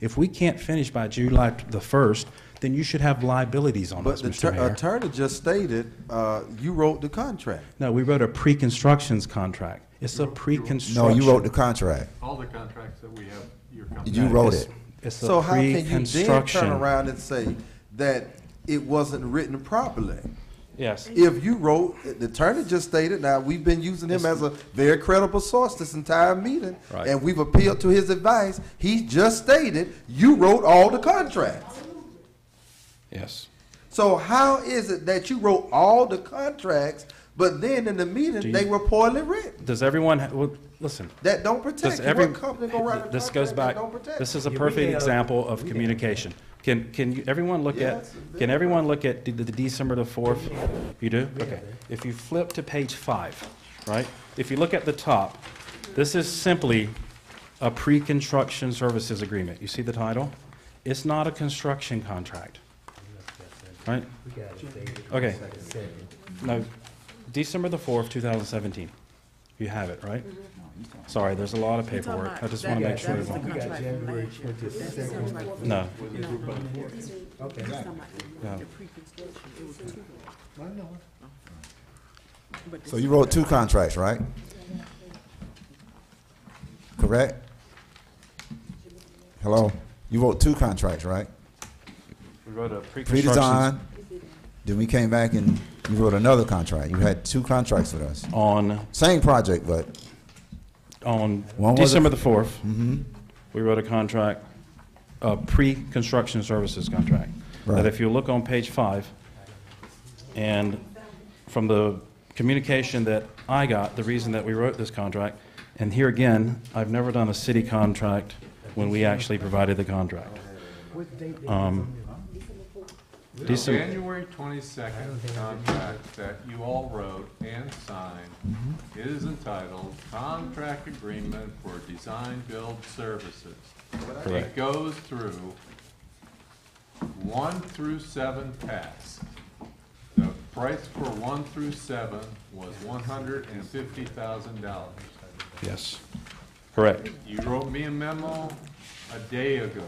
If we can't finish by July the 1st, then you should have liabilities on But us, the Mr. tur- uh, Mayor. attorney just stated, uh, you wrote the contract. No, we wrote a pre-constructions contract. It's a No, pre-construction. you wrote the contract. All the contracts that we have, your company. You wrote it. It's So a how can you then turn pre-construction. around and say that it wasn't written properly? Yes. If you wrote, the attorney just stated, now, we've been using him as a very credible source this entire meeting, Right. and we've appealed to his advice. He just stated, you wrote all the contracts. Yes. So how is it that you wrote all the contracts, but then in the meeting, you- they were poorly written? Does everyone, ha- well, listen, That don't does protect you. every, What company gonna write a this goes contract that back, don't protect this you? is a Yeah, we perfect had a- example of communication. Can, can you- everyone look Yeah, at, it's can everyone look at the the December the 4th? You do? Okay. If you flip to page five, right? If you look at the top, this is simply a pre-construction services agreement. You see the title? It's not a construction contract, right? We got it, David. Okay. Second. No, December the 4th, 2017. You have it, right? Sorry, there's a lot of paperwork. I just want to make sure. that was everyone- We got January twenty-second. No, Okay. no. So you wrote two contracts, right? Correct? Hello? You wrote two contracts, right? We wrote a pre-construction Pre-design, then we came back and you wrote another contract. You had two contracts with us. on, Same project, but on When was it? Mm-hmm. December the 4th. We wrote a contract, a pre-construction services contract. That Right. if you look on page five, and from the communication that I got, the reason that we wrote this contract, and here again, I've never done a city contract when we actually provided the contract. What date? Um, The December, January twenty-second contract that you all wrote and signed is entitled Contract Agreement for Design Build Services. It Correct. goes through one through seven pass. The price for one through seven was one hundred and fifty thousand dollars. yes, correct, You wrote me a memo a day ago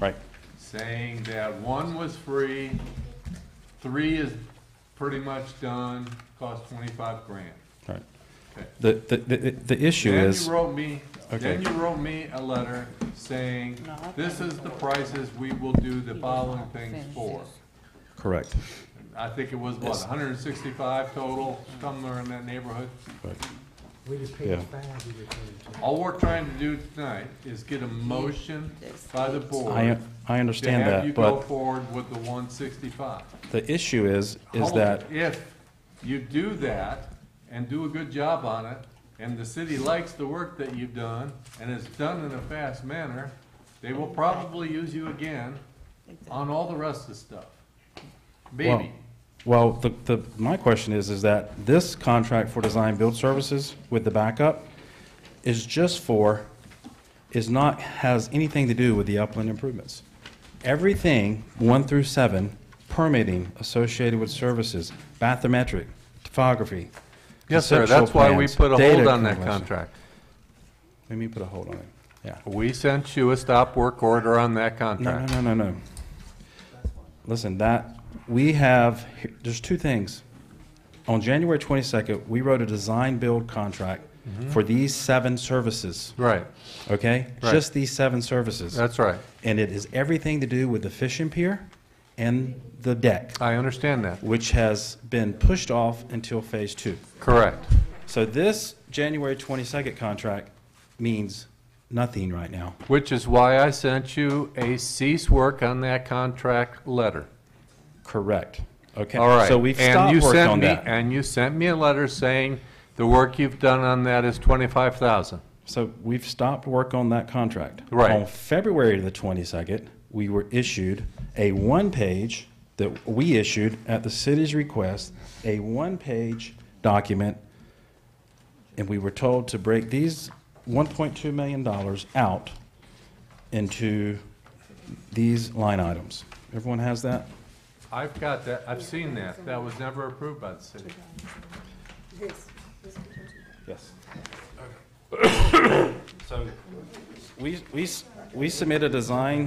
right, saying that one was free, three is pretty much done, cost twenty-five grand. right. Okay. The, the, the, the issue Then is, you wrote me, then Okay. you wrote me a letter saying, this is the prices we will do the following things for. correct, I think it was, what, hundred and sixty-five total, somewhere in that neighborhood? right. We just Yeah. paid five. we just paid- All we're trying to do tonight is get a motion by the I, board I to understand have you that, go but forward with the one sixty-five. the issue is, is Hold that, it. If you do that and do a good job on it, and the city likes the work that you've done, and it's done in a fast manner, they will probably use you again on all the rest of the stuff. well, Maybe. well, the, the, my question is, is that this contract for design build services with the backup is just for, is not, has anything to do with the upland improvements. Everything, one through seven, permitting associated with services, bathymetric, topography. conceptual plans, data compilation. Let me put a hold on it, yeah. We sent you a stop work order on that No, no, no, no, no. Listen, that, we have, there's two things. On January 22nd, we wrote a design-build contract Mm-hmm. for these seven services, Right, okay? Right. Just these seven services. right. And it is everything to do with the fishing pier and the deck, I understand that. which has been pushed off until Phase 2. Correct. So this January 22nd contract means nothing right now. Which is why I sent you a cease work on that contract letter. Correct, okay? All right. So we've And stopped you work sent on me- that. And you sent me a letter saying the work you've done on that is twenty-five thousand. So we've stopped work on that contract. Right. On February the 22nd, we were issued a one-page, that we issued at the city's request, a one-page document, and we were told to break these $1.2 million out into these line items. Everyone has that? I've got that, I've seen that. That was never approved by the city. Yes. So we, we, s- we submit a design